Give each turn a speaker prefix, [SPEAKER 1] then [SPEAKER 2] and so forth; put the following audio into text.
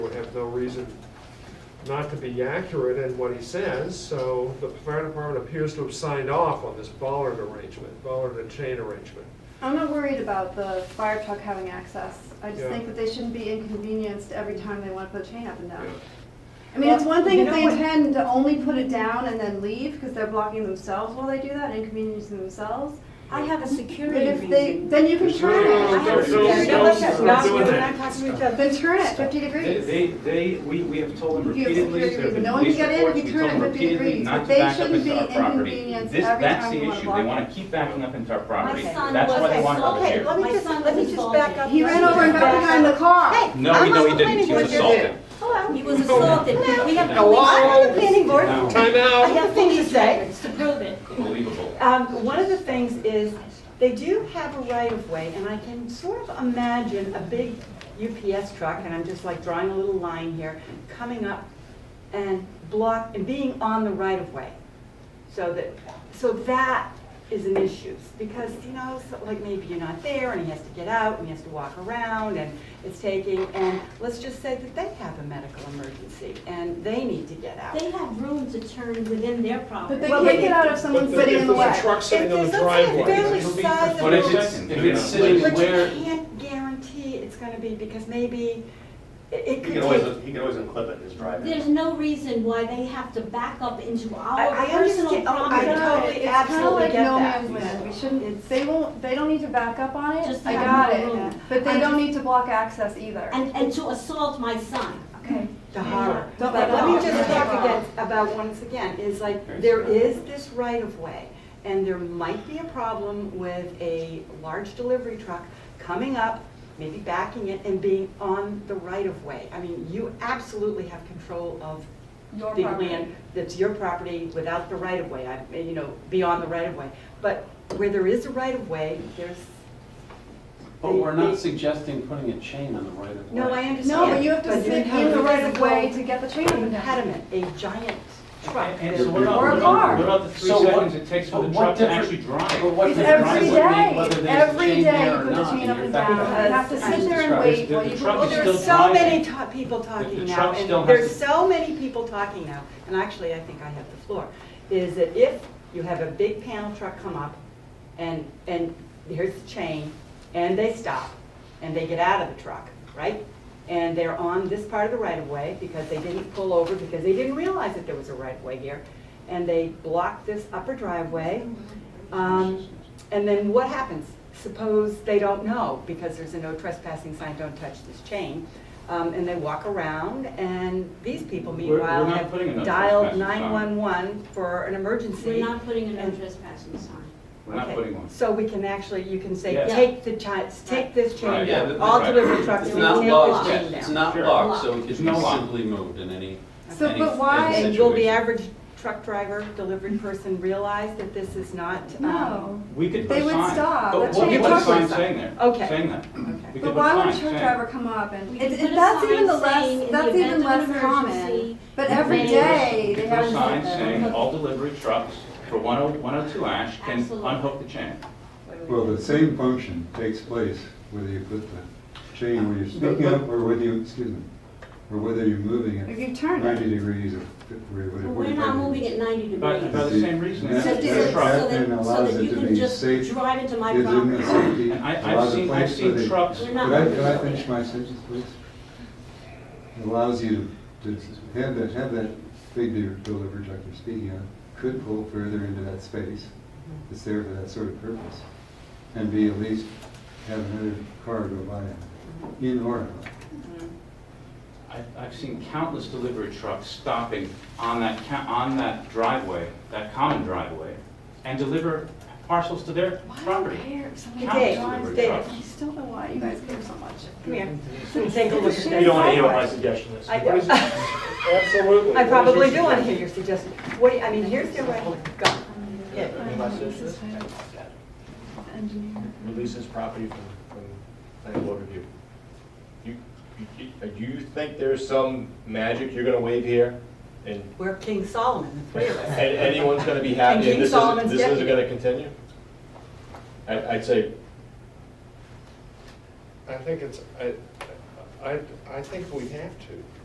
[SPEAKER 1] there's no reason not to be accurate in what he says, so the fire department appears to have signed off on this bollard arrangement, bollard and chain arrangement.
[SPEAKER 2] I'm not worried about the fire truck having access. I just
[SPEAKER 1] Yeah.
[SPEAKER 2] think that they shouldn't be inconvenienced every time they want to put a chain up and down.
[SPEAKER 1] Yeah.
[SPEAKER 2] I mean, it's one thing
[SPEAKER 3] Well,
[SPEAKER 2] if
[SPEAKER 3] you
[SPEAKER 2] they
[SPEAKER 3] know what-
[SPEAKER 2] intend to only put it down and then leave because they're blocking themselves while they do that, inconveniencing themselves.
[SPEAKER 3] I have a
[SPEAKER 2] But
[SPEAKER 3] security
[SPEAKER 2] if they,
[SPEAKER 3] reason.
[SPEAKER 2] then you can
[SPEAKER 4] There's
[SPEAKER 2] turn
[SPEAKER 4] no-
[SPEAKER 3] I
[SPEAKER 2] it.
[SPEAKER 3] have a
[SPEAKER 4] there's no-
[SPEAKER 3] security, no, let's
[SPEAKER 4] no-
[SPEAKER 3] just not,
[SPEAKER 1] no-
[SPEAKER 3] we're not talking to each other.
[SPEAKER 2] Then turn it fifty degrees.
[SPEAKER 4] They, they, we, we have told them
[SPEAKER 2] You have
[SPEAKER 4] repeatedly,
[SPEAKER 2] security
[SPEAKER 4] there have
[SPEAKER 2] reason.
[SPEAKER 4] been
[SPEAKER 2] No one can
[SPEAKER 4] police
[SPEAKER 2] get in if
[SPEAKER 4] reports,
[SPEAKER 2] you
[SPEAKER 4] we
[SPEAKER 2] turn
[SPEAKER 4] told
[SPEAKER 2] it
[SPEAKER 4] them
[SPEAKER 2] 50
[SPEAKER 4] repeatedely
[SPEAKER 2] degrees.
[SPEAKER 4] not to
[SPEAKER 2] They
[SPEAKER 4] back up
[SPEAKER 2] shouldn't
[SPEAKER 4] into our
[SPEAKER 2] be
[SPEAKER 4] property.
[SPEAKER 2] inconvenienced
[SPEAKER 4] This,
[SPEAKER 2] every
[SPEAKER 4] that's
[SPEAKER 2] time
[SPEAKER 4] the
[SPEAKER 2] you wanna
[SPEAKER 4] issue, they
[SPEAKER 2] block
[SPEAKER 4] wanna
[SPEAKER 2] it.
[SPEAKER 4] keep backing up into our property,
[SPEAKER 5] son
[SPEAKER 4] that's why they
[SPEAKER 5] was
[SPEAKER 4] want
[SPEAKER 5] assaulted.
[SPEAKER 4] over
[SPEAKER 3] Okay,
[SPEAKER 4] there.
[SPEAKER 3] let me
[SPEAKER 5] My
[SPEAKER 3] just,
[SPEAKER 5] son
[SPEAKER 3] let me
[SPEAKER 5] was
[SPEAKER 3] just back up.
[SPEAKER 2] He
[SPEAKER 3] Let
[SPEAKER 2] ran
[SPEAKER 3] me
[SPEAKER 2] over and
[SPEAKER 3] just
[SPEAKER 2] got
[SPEAKER 3] back
[SPEAKER 2] behind
[SPEAKER 3] up.
[SPEAKER 2] the car.
[SPEAKER 4] No, he- no, he didn't, he was assaulted.
[SPEAKER 3] Hello?
[SPEAKER 5] He was assaulted. We have
[SPEAKER 1] Hello?
[SPEAKER 3] I'm on the planning
[SPEAKER 5] police records
[SPEAKER 3] board.
[SPEAKER 4] No.
[SPEAKER 1] Time
[SPEAKER 3] I
[SPEAKER 1] out!
[SPEAKER 3] have things to say.
[SPEAKER 5] to prove it.
[SPEAKER 4] Unbelievable.
[SPEAKER 3] Um, one of the things is, they do have a right of way, and I can sort of imagine a big UPS truck, and I'm just like drawing a little line here, coming up and block, and being on the right of way. So that, so that is an issue, because, you know, so like maybe you're not there, and he has to get out, and he has to walk around, and it's taking, and let's just say that they have a medical emergency, and they need to get out.
[SPEAKER 5] They have room to turn within their
[SPEAKER 2] But
[SPEAKER 5] property.
[SPEAKER 2] they
[SPEAKER 3] Well,
[SPEAKER 2] can't
[SPEAKER 3] they-
[SPEAKER 2] get out if someone's sitting in the way.
[SPEAKER 1] If there's a truck sitting on
[SPEAKER 3] If
[SPEAKER 1] the
[SPEAKER 3] there's something
[SPEAKER 1] driveway.
[SPEAKER 3] fairly
[SPEAKER 1] it'll be
[SPEAKER 3] sizable-
[SPEAKER 4] But if
[SPEAKER 1] protected.
[SPEAKER 4] it's, if it's
[SPEAKER 3] But
[SPEAKER 4] sitting where,
[SPEAKER 3] you can't guarantee it's gonna be, because maybe it- it
[SPEAKER 6] He
[SPEAKER 3] could
[SPEAKER 6] can always,
[SPEAKER 3] take.
[SPEAKER 6] he can always unclip it in his driveway.
[SPEAKER 5] There's no reason why they have to back up into
[SPEAKER 3] I- I
[SPEAKER 5] our
[SPEAKER 3] understand.
[SPEAKER 5] personal
[SPEAKER 3] Oh, I
[SPEAKER 5] property.
[SPEAKER 3] know.
[SPEAKER 2] It's
[SPEAKER 3] totally, absolutely get
[SPEAKER 2] kind of like no
[SPEAKER 3] that.
[SPEAKER 2] man's land, we
[SPEAKER 3] It's-
[SPEAKER 2] shouldn't, they won't, they don't need to back up on it,
[SPEAKER 5] Just
[SPEAKER 2] I
[SPEAKER 5] have
[SPEAKER 2] got
[SPEAKER 5] more
[SPEAKER 2] it,
[SPEAKER 5] room.
[SPEAKER 2] but
[SPEAKER 3] I'm
[SPEAKER 2] they don't
[SPEAKER 3] just-
[SPEAKER 2] need to block access either.
[SPEAKER 5] And, and to assault my son.
[SPEAKER 2] Okay.
[SPEAKER 3] The horror.
[SPEAKER 2] Don't
[SPEAKER 3] But
[SPEAKER 2] let
[SPEAKER 3] let me
[SPEAKER 2] that-
[SPEAKER 3] just
[SPEAKER 2] don't let that-
[SPEAKER 3] talk again about once again, is like,
[SPEAKER 4] Very
[SPEAKER 3] there
[SPEAKER 4] smart.
[SPEAKER 3] is this right of way, and there might be a problem with a large delivery truck coming up, maybe backing it and being on the right of way. I mean, you absolutely have control of
[SPEAKER 2] Your
[SPEAKER 3] big
[SPEAKER 2] property.
[SPEAKER 3] land that's your property without the right of way, I, you know, beyond the right of way. But where there is a right of way, there's,
[SPEAKER 7] But we're not suggesting putting a chain on the right of way.
[SPEAKER 3] no, I understand.
[SPEAKER 2] No, but you have to
[SPEAKER 3] you
[SPEAKER 2] sit
[SPEAKER 3] have
[SPEAKER 2] in the
[SPEAKER 3] a
[SPEAKER 2] right of way
[SPEAKER 3] physical
[SPEAKER 2] to get the chain up and down.
[SPEAKER 3] Impediment, a giant truck.
[SPEAKER 4] And
[SPEAKER 3] that-
[SPEAKER 4] so what about-
[SPEAKER 2] Or a
[SPEAKER 4] what about-
[SPEAKER 2] car.
[SPEAKER 4] What about the three
[SPEAKER 7] So what-
[SPEAKER 4] seconds it takes for the
[SPEAKER 7] but what
[SPEAKER 4] truck to
[SPEAKER 7] difference-
[SPEAKER 4] actually
[SPEAKER 7] But
[SPEAKER 4] drive?
[SPEAKER 7] what
[SPEAKER 2] It's
[SPEAKER 7] difference
[SPEAKER 2] every
[SPEAKER 7] would it
[SPEAKER 2] day.
[SPEAKER 7] make whether there's a
[SPEAKER 2] Every
[SPEAKER 7] chain
[SPEAKER 2] day
[SPEAKER 7] there
[SPEAKER 2] you
[SPEAKER 7] or
[SPEAKER 2] put the
[SPEAKER 7] not?
[SPEAKER 2] chain
[SPEAKER 7] And
[SPEAKER 2] up
[SPEAKER 7] you're
[SPEAKER 2] and
[SPEAKER 7] affecting
[SPEAKER 2] down.
[SPEAKER 7] that.
[SPEAKER 2] You have to
[SPEAKER 3] As-
[SPEAKER 2] sit there and
[SPEAKER 7] as
[SPEAKER 2] wait
[SPEAKER 7] the-
[SPEAKER 2] while
[SPEAKER 7] the
[SPEAKER 2] you.
[SPEAKER 7] truck
[SPEAKER 3] Well,
[SPEAKER 7] is
[SPEAKER 2] there's-
[SPEAKER 7] still
[SPEAKER 3] there's so many
[SPEAKER 7] driving.
[SPEAKER 3] ta- people talking
[SPEAKER 7] the
[SPEAKER 3] now,
[SPEAKER 7] truck
[SPEAKER 3] and
[SPEAKER 7] still has
[SPEAKER 3] there's
[SPEAKER 7] to-
[SPEAKER 3] so many people talking now, and actually, I think I have the floor, is that if you have a big panel truck come up, and, and here's the chain, and they stop, and they get out of the truck, right? And they're on this part of the right-of-way, because they didn't pull over, because they didn't realize that there was a right-of-way here, and they block this upper driveway, um, and then what happens? Suppose they don't know, because there's a no trespassing sign, don't touch this chain, um, and they walk around, and these people
[SPEAKER 4] We're- we're
[SPEAKER 3] meanwhile
[SPEAKER 4] not
[SPEAKER 3] have
[SPEAKER 4] putting a no
[SPEAKER 3] dialed
[SPEAKER 4] trespassing sign.
[SPEAKER 3] nine-one-one for an emergency.
[SPEAKER 5] We're not putting a no
[SPEAKER 3] And-
[SPEAKER 5] trespassing sign.
[SPEAKER 4] We're not
[SPEAKER 3] Okay,
[SPEAKER 4] putting one.
[SPEAKER 3] So we can actually, you can say,
[SPEAKER 4] Yeah.
[SPEAKER 3] take the chi, take this chain
[SPEAKER 4] Right.
[SPEAKER 7] Yeah,
[SPEAKER 3] down,
[SPEAKER 7] that-
[SPEAKER 3] all
[SPEAKER 4] right.
[SPEAKER 3] delivery trucks,
[SPEAKER 7] It's
[SPEAKER 3] take
[SPEAKER 7] not
[SPEAKER 3] this
[SPEAKER 7] locked,
[SPEAKER 3] chain down.
[SPEAKER 7] it's not
[SPEAKER 4] Sure.
[SPEAKER 7] locked, so it could
[SPEAKER 4] It's
[SPEAKER 7] be
[SPEAKER 4] not locked.
[SPEAKER 7] simply moved in any,
[SPEAKER 2] So,
[SPEAKER 7] any
[SPEAKER 2] but why-
[SPEAKER 7] any
[SPEAKER 3] And will the
[SPEAKER 7] situation.
[SPEAKER 3] average truck driver, delivery person realize that this is not? um,
[SPEAKER 2] No,
[SPEAKER 4] We could put
[SPEAKER 2] They
[SPEAKER 4] a
[SPEAKER 2] would
[SPEAKER 4] sign.
[SPEAKER 2] stop.
[SPEAKER 4] But
[SPEAKER 2] Let's
[SPEAKER 4] we'll
[SPEAKER 2] change
[SPEAKER 4] put a
[SPEAKER 2] the
[SPEAKER 4] sign
[SPEAKER 3] sign.
[SPEAKER 4] saying there,
[SPEAKER 3] Okay.
[SPEAKER 4] saying that. We
[SPEAKER 3] Okay.
[SPEAKER 4] could
[SPEAKER 2] but
[SPEAKER 4] put
[SPEAKER 2] why would
[SPEAKER 4] sign
[SPEAKER 2] a truck
[SPEAKER 4] saying-
[SPEAKER 2] driver come up and,
[SPEAKER 5] We
[SPEAKER 2] it-
[SPEAKER 5] could put
[SPEAKER 2] it-
[SPEAKER 5] a
[SPEAKER 2] that's
[SPEAKER 5] sign
[SPEAKER 2] even the
[SPEAKER 5] saying, in
[SPEAKER 2] less,
[SPEAKER 5] the
[SPEAKER 2] that's
[SPEAKER 5] event
[SPEAKER 2] even
[SPEAKER 5] of
[SPEAKER 2] less
[SPEAKER 5] an
[SPEAKER 2] common.
[SPEAKER 5] emergency,
[SPEAKER 2] But
[SPEAKER 5] we
[SPEAKER 2] every
[SPEAKER 5] may-
[SPEAKER 2] day
[SPEAKER 4] We
[SPEAKER 2] they
[SPEAKER 4] could put
[SPEAKER 2] have
[SPEAKER 4] a
[SPEAKER 2] to
[SPEAKER 4] sign
[SPEAKER 2] sit there.
[SPEAKER 4] saying all delivery trucks for 10- 102 ash can
[SPEAKER 5] Absolutely.
[SPEAKER 4] unhook the chain.
[SPEAKER 8] Well, the same function takes place whether you put the chain where you're speaking up or whether you, excuse me, or whether you're moving
[SPEAKER 2] If
[SPEAKER 8] it
[SPEAKER 2] you turn it.
[SPEAKER 8] ninety degrees or fif- or
[SPEAKER 5] But
[SPEAKER 8] whatever.
[SPEAKER 5] We're not moving at ninety
[SPEAKER 4] By- by
[SPEAKER 5] degrees.
[SPEAKER 4] the same reason.
[SPEAKER 8] Yeah.
[SPEAKER 4] it's
[SPEAKER 5] So
[SPEAKER 4] a
[SPEAKER 5] that- so
[SPEAKER 4] truck.
[SPEAKER 8] Yeah.
[SPEAKER 5] that,
[SPEAKER 8] Yeah.
[SPEAKER 5] so that you
[SPEAKER 8] Allows it to
[SPEAKER 5] can
[SPEAKER 8] be
[SPEAKER 5] just
[SPEAKER 8] safe.
[SPEAKER 5] drive into my
[SPEAKER 8] Gives them the
[SPEAKER 5] property.
[SPEAKER 8] safety,
[SPEAKER 4] And I- I've
[SPEAKER 8] allows
[SPEAKER 4] seen-
[SPEAKER 8] a
[SPEAKER 4] I've
[SPEAKER 8] place
[SPEAKER 4] seen
[SPEAKER 8] where they.
[SPEAKER 4] trucks-
[SPEAKER 5] We're
[SPEAKER 8] Could
[SPEAKER 5] not
[SPEAKER 8] I,
[SPEAKER 5] moving.
[SPEAKER 8] could I finish my sentence, please? It Allows you to, to have that, have that big de- delivery truck you're speaking of, could pull further into that space. It's there for that sort of purpose. And be at least have another car go by in or out.
[SPEAKER 4] I've, I've seen countless delivery trucks stopping on that, ca- on that driveway, that common driveway, and deliver parcels to their
[SPEAKER 2] Why do you
[SPEAKER 4] property.
[SPEAKER 2] care if somebody
[SPEAKER 3] Dave,
[SPEAKER 2] drives?
[SPEAKER 3] Dave,
[SPEAKER 2] I still don't know why you guys care so much.
[SPEAKER 3] come here, and take a look at this.
[SPEAKER 2] You don't wanna hear what I
[SPEAKER 6] suggestion
[SPEAKER 3] I do.
[SPEAKER 1] Absolutely.
[SPEAKER 3] I probably
[SPEAKER 1] What
[SPEAKER 3] do want
[SPEAKER 1] is
[SPEAKER 3] to hear your suggestion. What, do you- I mean, here's the way, go. Yeah.
[SPEAKER 2] This is Engineer.
[SPEAKER 6] Release his property from, from planning board review. You, you- you- do you think there's some magic you're gonna wave here? And,
[SPEAKER 3] We're King Solomon, the three of
[SPEAKER 6] and
[SPEAKER 3] us.
[SPEAKER 6] anyone's gonna be
[SPEAKER 3] And
[SPEAKER 6] happy
[SPEAKER 3] King
[SPEAKER 6] and this
[SPEAKER 3] Solomon's
[SPEAKER 6] is, this isn't
[SPEAKER 3] deputy.
[SPEAKER 6] gonna continue? I, I'd say,
[SPEAKER 1] I think it's, I, I, I think we have to.